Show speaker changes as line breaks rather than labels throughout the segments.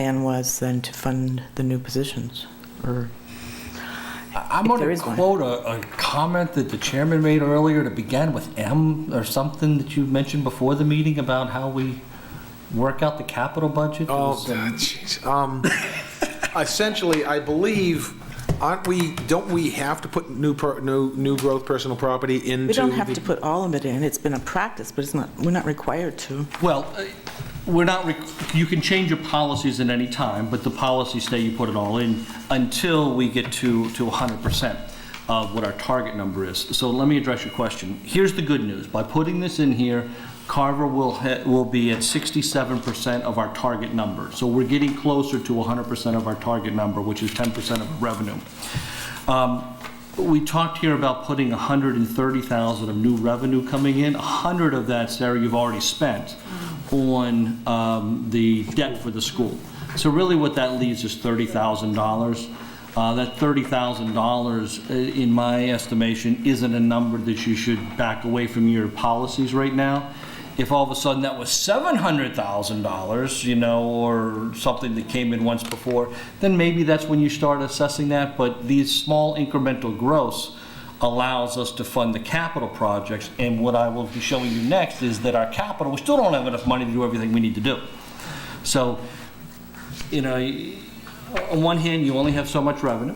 plan was then to fund the new positions, or,
I'm
If
going
there
to
is one.
quote a, a comment that the chairman made earlier that began with M or something that you mentioned before the meeting about how we work out the capital budget. It
Oh,
was, um,
jeez. Um, Essentially, I believe, aren't we, don't we have to put new, per- new, new growth personal property into?
we don't have
the-
to put all of it in, it's been a practice, but it's not, we're not required to.
Well, uh, we're not, rec- you can change your policies at any time, but the policies say you put it all in until we get to, to 100% of what our target number is. So let me address your question. Here's the good news. By putting this in here, Carver will, ha- will be at 67% of our target number. So we're getting closer to 100% of our target number, which is 10% of revenue. Um, We talked here about putting 130,000 of new revenue coming in. 100 of that, Sarah, you've already spent on um, the debt for the school. So really what that leaves is $30,000. Uh, That $30,000, i- uh, in my estimation, isn't a number that you should back away from your policies right now. If all of a sudden that was $700,000, you know, or something that came in once before, then maybe that's when you start assessing that. But these small incremental growths allows us to fund the capital projects. And what I will be showing you next is that our capital, we still don't have enough money to do everything we need to do. So, you know, on one hand, you only have so much revenue,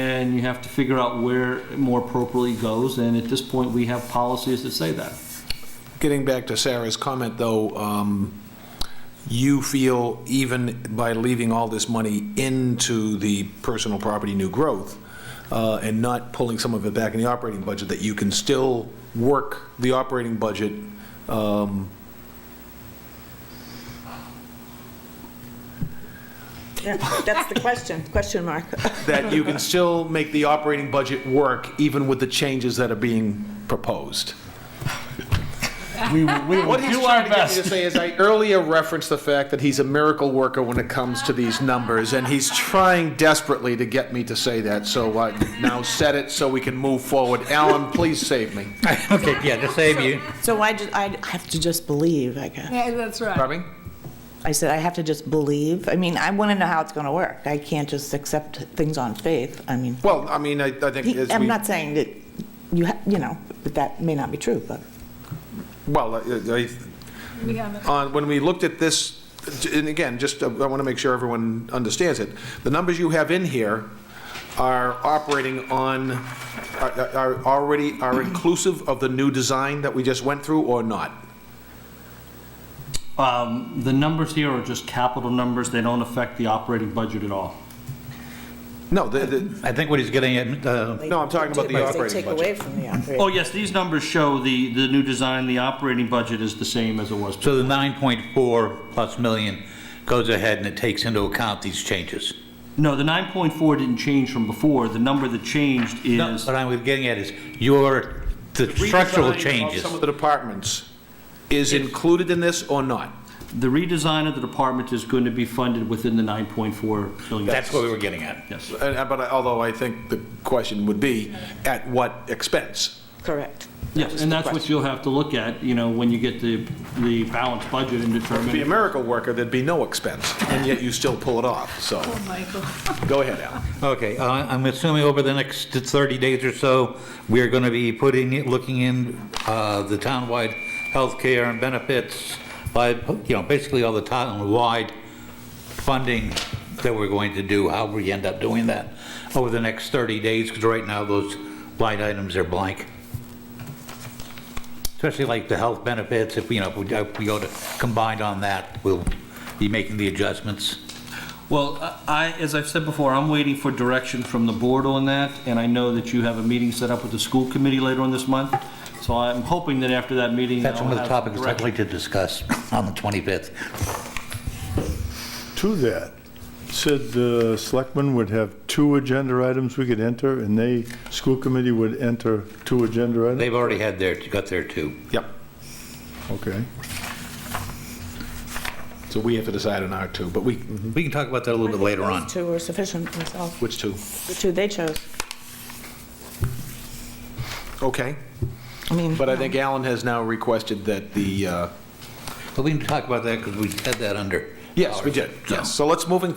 and you have to figure out where it more appropriately goes. And at this point, we have policies that say that.
Getting back to Sarah's comment, though, um, you feel even by leaving all this money into the personal property new growth uh, and not pulling some of it back in the operating budget, that you can still work the operating budget
Yeah, That's the question, question mark.
that you can still make the operating budget work even with the changes that are being proposed.
We will, we will
What he's
do our
trying to get me to
best.
say is, I earlier referenced the fact that he's a miracle worker when it comes to these numbers, and he's trying desperately to get me to say that, so I now said it so we can move forward. Alan, please save me.
Okay, yeah, to save you.
So I, ju- I have to just believe, I guess.
Yeah, that's right.
Pardon me?
I said, I have to just believe, I mean, I want to know how it's going to work, I can't just accept things on faith, I mean,
Well, I mean, I I think
he-
as
I'm
we,
not saying that, you, ha- you know, but that may not be true, but.
well, I- I-
We haven't.
on, when we looked at this, and again, just, uh, I want to make sure everyone understands it, the numbers you have in here are operating on, are are already, are inclusive of the new design that we just went through or not?
Um, The numbers here are just capital numbers, they don't affect the operating budget at all.
No, the, the,
I think what he's getting at, uh,
No, I'm talking about the operating budget.
from the operating.
Oh, yes, these numbers show the, the new design, the operating budget is the same as it was.
so the 9.4 plus million goes ahead and it takes into account these changes.
No, the 9.4 didn't change from before, the number that changed
No,
is,
What I was getting at is your, the structural changes.
Some of the departments is included in this or not?
the redesign of the department is going to be funded within the 9.4 million.
That's what we were getting at.
Yes.
And- and- But I- although I think the question would be, at what expense?
Correct.
Yes, and that's what you'll have to look at, you know, when you get the, the balanced budget and
Be a
determine.
miracle worker, there'd be no expense, and yet you still pull it off, so,
Oh, Michael.
go ahead, Al.
Okay, uh, I'm assuming over the next 30 days or so, we're going to be putting, it- looking in uh, the townwide healthcare and benefits, by, you know, basically all the townwide funding that we're going to do, how we end up doing that over the next 30 days, because right now those line items are blank. Especially like the health benefits, if, you know, if we- if we go to combined on that, we'll be making the adjustments.
Well, I, as I've said before, I'm waiting for direction from the board on that, and I know that you have a meeting set up with the school committee later on this month, so I'm hoping that after that meeting.
That's
I'll
one of the
have some
topics I'd
direction.
like to discuss on the 25th.
to that, said the selectmen would have two agenda items we could enter, and they, school committee would enter two agenda items?
They've already had their, got their two.
Yep,
Okay.
so we have to decide on our two, but we,
We can talk about that a little bit later on.
Those two were sufficient themselves,
which two?
the two they chose.
Okay,
I mean,
but I think Alan has now requested that the, uh,
But we can talk about that because we had that under
Yes, we did, yes. So let's moving